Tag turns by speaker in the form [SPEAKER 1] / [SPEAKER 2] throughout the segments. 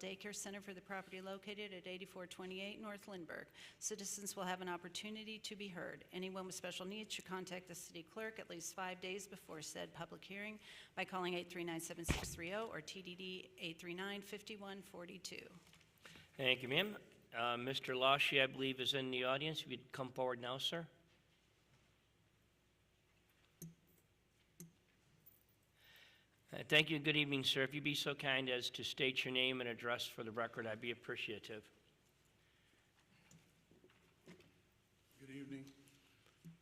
[SPEAKER 1] daycare center for the property located at 8428 North Lindbergh. Citizens will have an opportunity to be heard. Anyone with special needs should contact the city clerk at least five days before said public hearing by calling 839-7630 or TDD 839-5142.
[SPEAKER 2] Thank you, ma'am. Uh, Mr. Lashy, I believe, is in the audience. If you'd come forward now, sir. Uh, Thank you, and good evening, sir. If you'd be so kind as to state your name and address for the record, I'd be appreciative.
[SPEAKER 3] Good evening.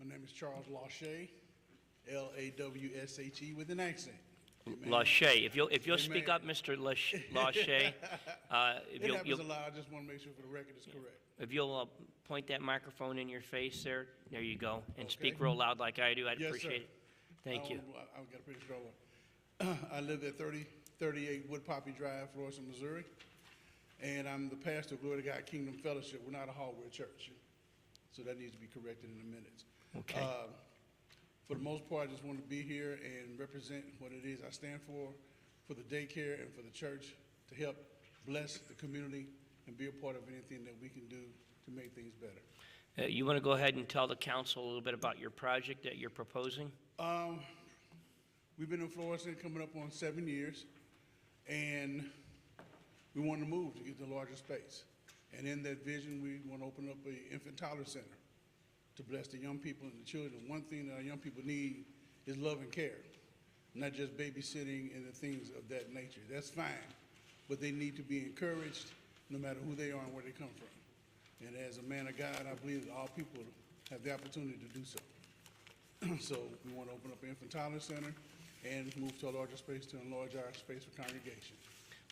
[SPEAKER 3] My name is Charles Lawshay, L-A-W-S-H-E E, with an accent.
[SPEAKER 2] Lashay, if you'll, if you'll speak
[SPEAKER 3] Amen.
[SPEAKER 2] up, Mr. Lash- Lashay, uh, if
[SPEAKER 3] It
[SPEAKER 2] you'll-
[SPEAKER 3] happens a
[SPEAKER 2] you'll,
[SPEAKER 3] lot. I just want to make sure for the record it's correct.
[SPEAKER 2] if you'll uh, point that microphone in your face there, there you go, and speak
[SPEAKER 3] Okay.
[SPEAKER 2] real loud like I do, I'd
[SPEAKER 3] Yes, sir.
[SPEAKER 2] appreciate it. Thank
[SPEAKER 3] I
[SPEAKER 2] you.
[SPEAKER 3] own- I- I've got a pretty strong one. I live at 30 38 Wood Poppy Drive, Florissant, Missouri. And I'm the pastor of Glory to God Kingdom Fellowship. We're not a hardware church. So that needs to be corrected in a minute.
[SPEAKER 2] Okay.
[SPEAKER 3] Uh, For the most part, I just want to be here and represent what it is I stand for, for the daycare and for the church, to help bless the community and be a part of anything that we can do to make things better.
[SPEAKER 2] Uh, You want to go ahead and tell the council a little bit about your project that you're proposing?
[SPEAKER 3] Um, we've been in Florissant coming up on seven years, and we want to move to get the larger space. And in that vision, we want to open up a infant toddler center to bless the young people and the children. One thing that our young people need is love and care, not just babysitting and the things of that nature. That's fine, but they need to be encouraged, no matter who they are and where they come from. And as a man of God, I believe that all people have the opportunity to do so. So we want to open up an infant toddler center and move to a larger space to enlarge our space for congregation.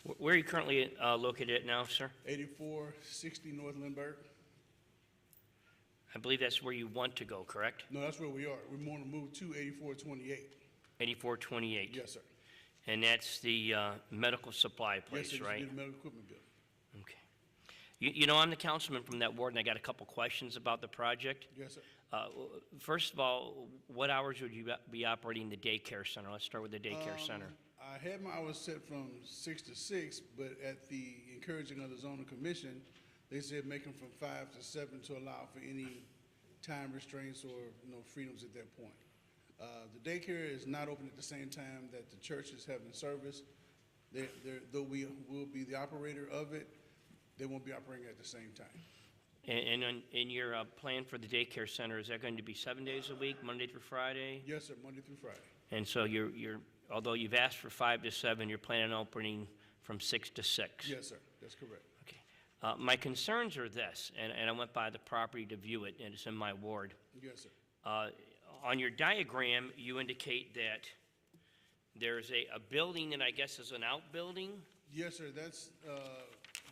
[SPEAKER 2] Wh- Where are you currently uh, located at now, sir?
[SPEAKER 3] Eighty-four sixty North Lindbergh,
[SPEAKER 2] I believe that's where you want to go, correct?
[SPEAKER 3] no, that's where we are. We want to move to eighty-four twenty-eight.
[SPEAKER 2] 8428?
[SPEAKER 3] Yes, sir.
[SPEAKER 2] And that's the uh, medical supply
[SPEAKER 3] Yes,
[SPEAKER 2] place,
[SPEAKER 3] sir.
[SPEAKER 2] right?
[SPEAKER 3] It's the medical equipment bill.
[SPEAKER 2] Okay. You- You know, I'm the councilman from that ward, and I got a couple questions about the project.
[SPEAKER 3] Yes, sir.
[SPEAKER 2] Uh, w- First of all, what hours would you be- be operating the daycare center? Let's start with the daycare center.
[SPEAKER 3] Um, I had my hours set from six to six, but at the encouraging of the zoning commission, they said make them from five to seven to allow for any time restraints or, you know, freedoms at that point. Uh, the daycare is not open at the same time that the church is having service. They, they're, though we will be the operator of it, they won't be operating at the same time.
[SPEAKER 2] And and on- in your uh, plan for the daycare center, is that going to be seven days a week, Monday through Friday?
[SPEAKER 3] Yes, sir, Monday through Friday.
[SPEAKER 2] And so you're, you're, although you've asked for five to seven, you're planning on opening from six to six?
[SPEAKER 3] Yes, sir, that's correct.
[SPEAKER 2] Okay. Uh, my concerns are this, and, and I went by the property to view it, and it's in my ward.
[SPEAKER 3] Yes, sir.
[SPEAKER 2] Uh, on your diagram, you indicate that there's a, a building that I guess is an outbuilding?
[SPEAKER 3] Yes, sir, that's, uh,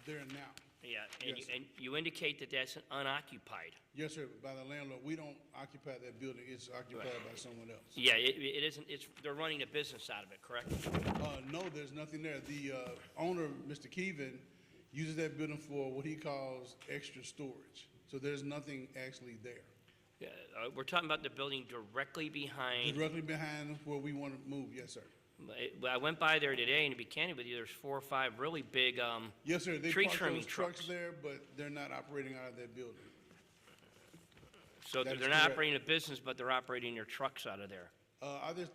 [SPEAKER 3] there now.
[SPEAKER 2] Yeah, and, you-
[SPEAKER 3] Yes.
[SPEAKER 2] and you indicate that that's unoccupied.
[SPEAKER 3] Yes, sir, by the landlord. We don't occupy that building. It's occupied by someone else.
[SPEAKER 2] Yeah, it, it isn't, it's, they're running a business out of it, correct?
[SPEAKER 3] Uh, no, there's nothing there. The, uh, owner, Mr. Keevan, uses that building for what he calls extra storage. So there's nothing actually there.
[SPEAKER 2] Yeah, Uh, we're talking about the building directly behind
[SPEAKER 3] Directly behind where we want to move, yes, sir.
[SPEAKER 2] I- well, I went by there today, and to be candid with you, there's four or five really big, um,
[SPEAKER 3] Yes, sir, they
[SPEAKER 2] Tree
[SPEAKER 3] park
[SPEAKER 2] trimming
[SPEAKER 3] those trucks
[SPEAKER 2] trucks.
[SPEAKER 3] there, but they're not operating out of that building.
[SPEAKER 2] so
[SPEAKER 3] That
[SPEAKER 2] they're
[SPEAKER 3] is
[SPEAKER 2] they're not
[SPEAKER 3] correct.
[SPEAKER 2] operating a business, but they're operating their trucks out of there.
[SPEAKER 3] Uh, I just,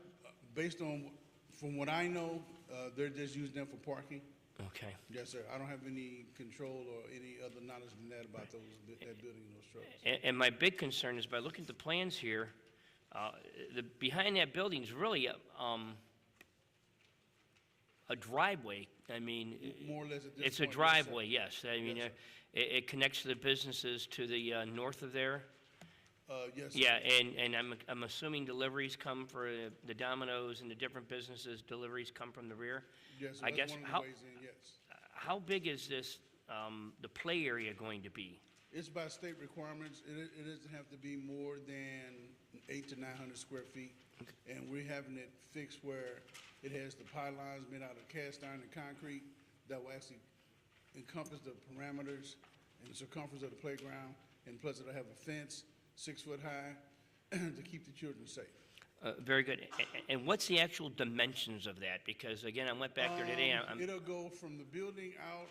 [SPEAKER 3] based on, from what I know, uh, they're just using them for parking.
[SPEAKER 2] Okay.
[SPEAKER 3] Yes, sir. I don't have any control or any other knowledge than that about those, that building and those trucks.
[SPEAKER 2] And, and my big concern is by looking at the plans here, uh, the, behind that building is really, a, um, a driveway. I mean,
[SPEAKER 3] More or less at this point.
[SPEAKER 2] it's a
[SPEAKER 3] yes, sir.
[SPEAKER 2] driveway, yes. I mean,
[SPEAKER 3] Yes,
[SPEAKER 2] uh,
[SPEAKER 3] sir.
[SPEAKER 2] it, it connects to the businesses to the, uh, north of there.
[SPEAKER 3] Uh, yes. sir.
[SPEAKER 2] Yeah, and, and I'm, I'm assuming deliveries come for uh, the Domino's and the different businesses, deliveries come from the rear?
[SPEAKER 3] Yes, sir,
[SPEAKER 2] I
[SPEAKER 3] that's
[SPEAKER 2] guess,
[SPEAKER 3] one of the
[SPEAKER 2] how,
[SPEAKER 3] ways in, yes.
[SPEAKER 2] how big is this, um, the play area going to be?
[SPEAKER 3] It's by state requirements. It, it doesn't have to be more than eight to nine hundred square feet. And we're having it fixed where it has the pylons made out of cast iron and concrete that will actually encompass the parameters and the circumference of the playground. And plus it'll have a fence, six foot high, to keep the children safe.
[SPEAKER 2] Uh, very good. A- a- And what's the actual dimensions of that? Because again, I went back there today,
[SPEAKER 3] Um,
[SPEAKER 2] I'm,
[SPEAKER 3] It'll go from the building out